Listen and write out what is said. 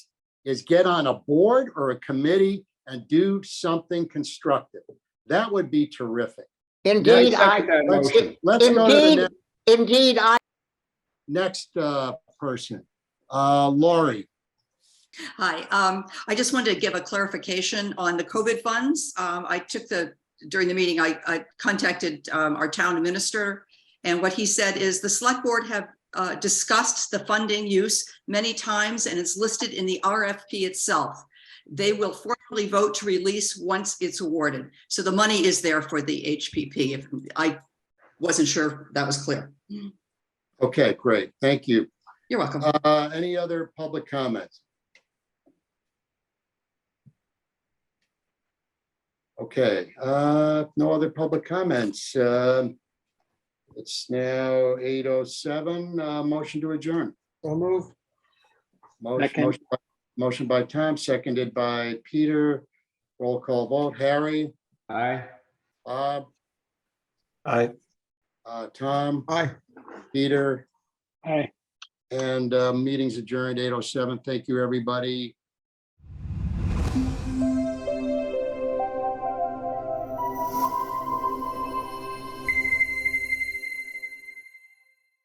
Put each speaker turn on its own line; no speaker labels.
is get on a board or a committee and do something constructive. That would be terrific.
Indeed, I,
second that
Let's,
motion.
let's go to the
indeed, indeed, I,
ne- next, uh, person. Uh, Lori,
Hi, um, I just wanted to give a clarification on the COVID funds. Um, I took the, during the meeting, I, I contacted, um, our town administrator. And what he said is the select board have, uh, discussed the funding use many times and it's listed in the RFP itself. They will formally vote to release once it's awarded. So the money is there for the HPP. If I wasn't sure that was clear.
okay, great, thank you.
You're welcome.
Uh, any other public comments? Okay, uh, no other public comments. Um, It's now eight oh seven, uh, motion to adjourn.
So moved.
Motion
Second.
motion by- motion by Tom, seconded by Peter. Roll call vote, Harry,
Aye.
Bob,
Aye.
uh, Tom,
Aye.
Peter,
Aye.
and, uh, meetings adjourned eight oh seven. Thank you, everybody.